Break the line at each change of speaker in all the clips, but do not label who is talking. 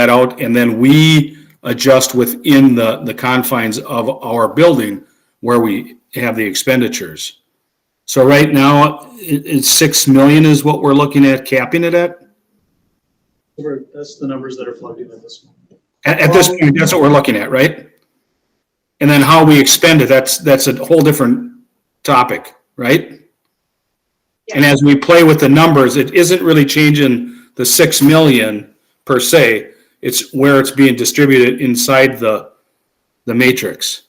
that out, and then we adjust within the, the confines of our building where we have the expenditures. So right now, it, it's six million is what we're looking at capping it at?
We're- That's the numbers that are plugged in at this moment.
At, at this point, that's what we're looking at, right? And then how we expend it, that's, that's a whole different topic, right? And as we play with the numbers, it isn't really changing the six million per se. It's where it's being distributed inside the, the matrix.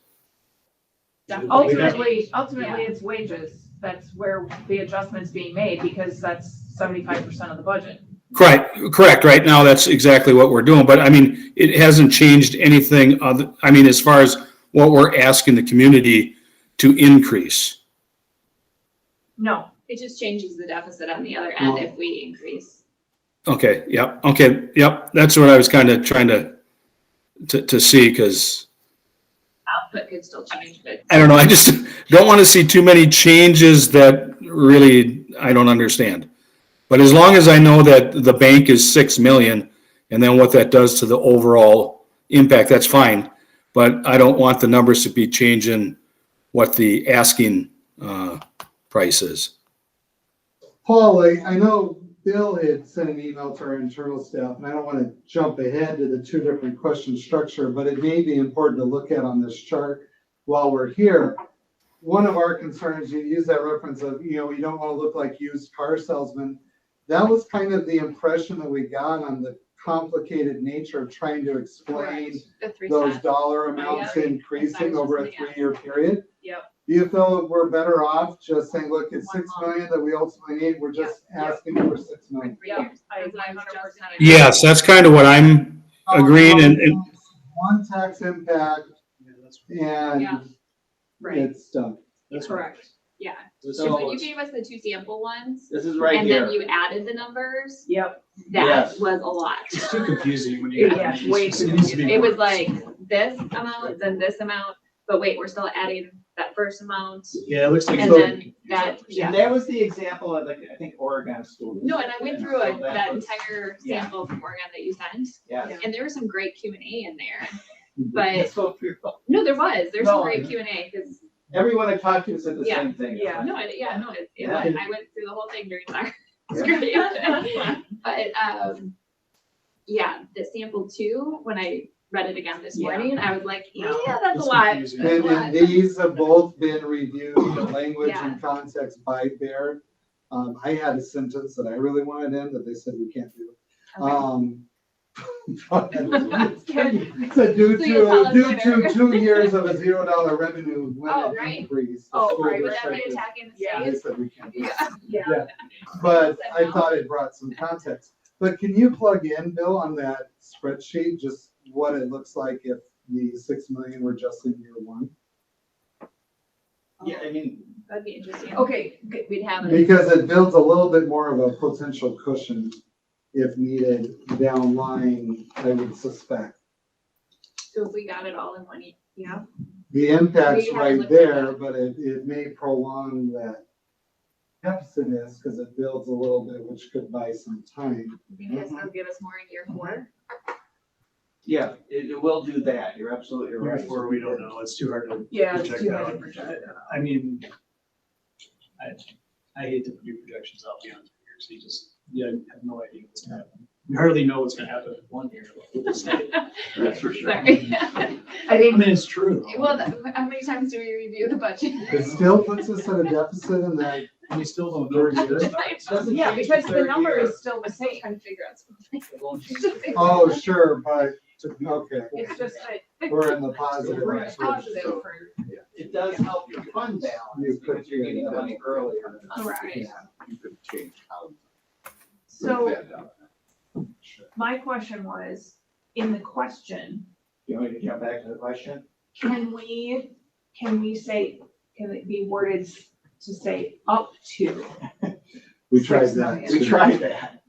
Yeah.
Ultimately, ultimately, it's wages. That's where the adjustment's being made because that's seventy-five percent of the budget.
Correct, correct. Right now, that's exactly what we're doing, but I mean, it hasn't changed anything other, I mean, as far as what we're asking the community to increase.
No,
It just changes the deficit on the other end if we increase.
Okay, yep, okay, yep, that's what I was kind of trying to, to, to see, because,
Output could still change, but
I don't know, I just don't want to see too many changes that really I don't understand. But as long as I know that the bank is six million, and then what that does to the overall impact, that's fine. But I don't want the numbers to be changing what the asking, uh, price is.
Paul, I, I know Bill had sent an email to our internal staff, and I don't want to jump ahead to the two different question structure, but it may be important to look at on this chart while we're here. One of our concerns, you use that reference of, you know, we don't want to look like used car salesmen. That was kind of the impression that we got on the complicated nature of trying to explain
the three
those
cents.
dollar amounts
yeah.
increasing over a
Yeah.
three-year period?
Yep.
Do you feel we're better off just saying, look, it's
One
six
lump.
million that we ultimately need, we're just
Yeah.
asking for six million?
Three
Yeah,
years.
I
That's what I was
100%
just-
Yes, that's kind of what I'm, Agreed, and- and-
One tax impact
Yeah, that's-
Yeah.
and
right,
it's done.
that's
Correct, yeah.
This
So when you
is-
gave us the two sample ones,
This is right
and then
here.
you added the numbers,
yep,
that
Yes.
was a lot.
It's too confusing when you.
Yeah, way too
It needs to be
It was
more-
like this amount, then this amount, but wait, we're still adding that first amount,
Yeah, it looks like.
and then that, yeah.
And that was the example of like, I think Oregon school.
No, and I went through a-
So that
that
was-
entire
Yeah.
sample from Oregon that you sent,
Yeah.
and there was some great Q and A in there, but
So people-
No, there was. There's some
No.
great Q and A because
Everyone I talked to said the
Yeah,
same thing.
yeah.
no, it, yeah, no, it, it
Yeah.
was. I went through the whole thing during our script. but um, yeah, the sample two. When I read it again this
Yeah.
morning, I was like, yeah,
Wow.
that's a
It's
lot.
confusing.
That's
And,
a lot.
and these have both been reviewed, the language
Yeah.
and context by Baird. Um, I had a sentence that I really wanted in that they said we can't do.
Okay.
Um.
Good.
So due
So you'll tell
to,
us
due to
later.
two years of a zero dollar revenue
Oh,
limit
right.
increase. the
Oh,
school
right. Would that be
district is-
attacking the
Yeah.
state?
They said we can't do it.
yeah.
But I thought it brought some context. But can you plug in, Bill, on that spreadsheet, just what it looks like if the six million were just in year one?
Yeah, I mean,
That'd be interesting. Oh,
Okay,
Good, we'd have it.
Because it builds a little bit more of a potential cushion if needed down line, I would suspect.
So if we got it all in one, e- yeah.
The impact's
We haven't
right
looked at
there,
that.
but it, it may prolong that deficit is, because it builds a little bit, which could buy some time.
Maybe this will give us more in year four.
yeah, it, it will do that. You're absolutely right.
Where we don't know, it's too hard to.
Yeah, it's
project
too hard to
out.
project.
I mean, I, I hate to do projections out beyond three years, you just, yeah, you have no idea what's gonna happen. You hardly know what's gonna happen in one year.
That's for
Sorry.
I
I
think,
mean, it's true. though.
well, th- how many times do we review the budget?
It still puts us at a deficit in that
We still don't know where it's gonna start.
Doesn't
yeah,
change
because the
third
number
year.
is still the same.
Trying to figure out something.
It won't change the third
Oh, sure, but, okay,
It's just that.
we're in the positive.
Right.
range.
Positive
So-
for-
year. It does help your fund balance because you're getting the money earlier.
Right.
You could change how.
So my question was, in the question,
You want me to jump back to the question?
can we, can we say, can it be worded to say up to?
We tried that.
Six
We tried that.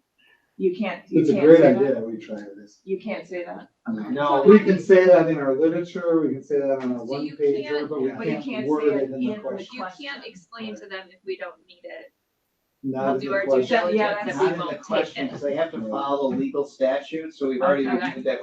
You can't, you
It's a
can't say
great
that.
idea, we tried this.
You can't say that,
No,
We can say that in our literature, we can say that on our
So
one
you
pager,
can't-
but we
but
but you
can't
can't say
word
it
it in the
in the
question.
You can't explain to them if we don't need it.
Not
We'll
as
do
a
our due
question.
diligence
Yeah,
and
that's-
we
Not in the
won't take
question,
it.
because they have to follow legal statutes, so we've already
Okay.
reviewed that